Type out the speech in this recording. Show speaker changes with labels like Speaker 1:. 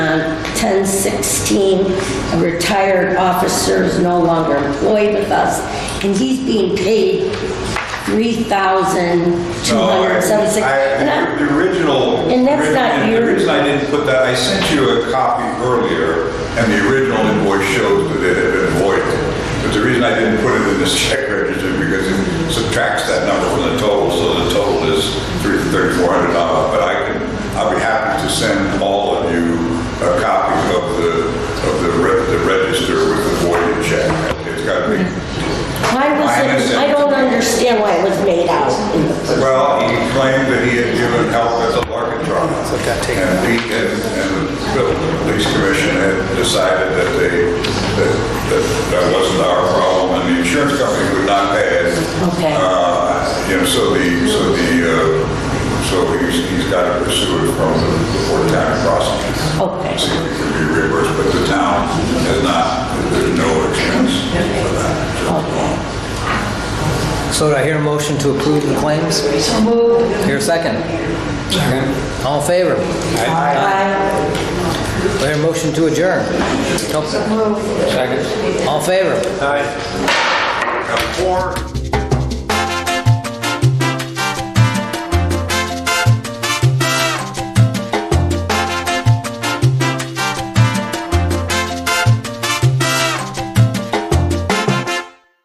Speaker 1: 1016, a retired officer is no longer employed with us, and he's being paid $3,276.
Speaker 2: No, I-
Speaker 1: And
Speaker 2: I-
Speaker 1: I'm-
Speaker 2: The original.
Speaker 1: And that's not
Speaker 2: and
Speaker 1: your-
Speaker 2: The reason I didn't put that, I sent you a copy earlier, and the original invoice shows that it had been voided. But the reason I didn't put it in this check register, because it subtracts that number from the total, so the total is three- $3,400. But I can, I'll be happy to send all of you a copy of the, of the re- the register with the voided check. It's got to be,
Speaker 1: Why was
Speaker 2: I
Speaker 1: it,
Speaker 2: understand.
Speaker 1: I don't understand why it was made out in the first.
Speaker 2: Well, he claimed that he had given help at the Larkin trial. And Pete and, and the police commission had decided that they, that, that that wasn't our problem, and the insurance company would not pay it.
Speaker 1: Okay.
Speaker 2: Uh, You know, so the, so the, uh, so he's, he's got to pursue it from the Fort County prosecutor.
Speaker 1: Okay.
Speaker 2: See if it can be reimbursed, but the town has not, there's no expense for that.
Speaker 3: So do I hear a motion to approve the claims? Hear a second? Second. All in favor?
Speaker 1: Aye.
Speaker 3: Do I hear a motion to adjourn? Nope. Second. All in favor?
Speaker 2: Now, four